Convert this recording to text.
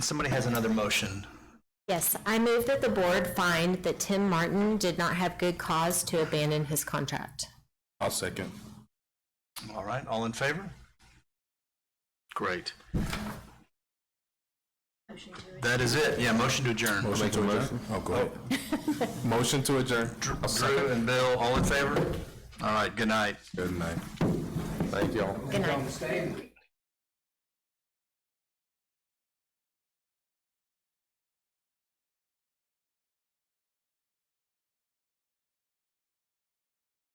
Somebody has another motion. Yes, I move that the board find that Tim Martin did not have good cause to abandon his contract. I'll second. All right, all in favor? Great. That is it. Yeah, motion to adjourn. Motion to adjourn? Oh, go ahead. Motion to adjourn. I'll Drew second. and Bill, all in favor? All right, good night. Good night. Thank y'all. Good night. Stay.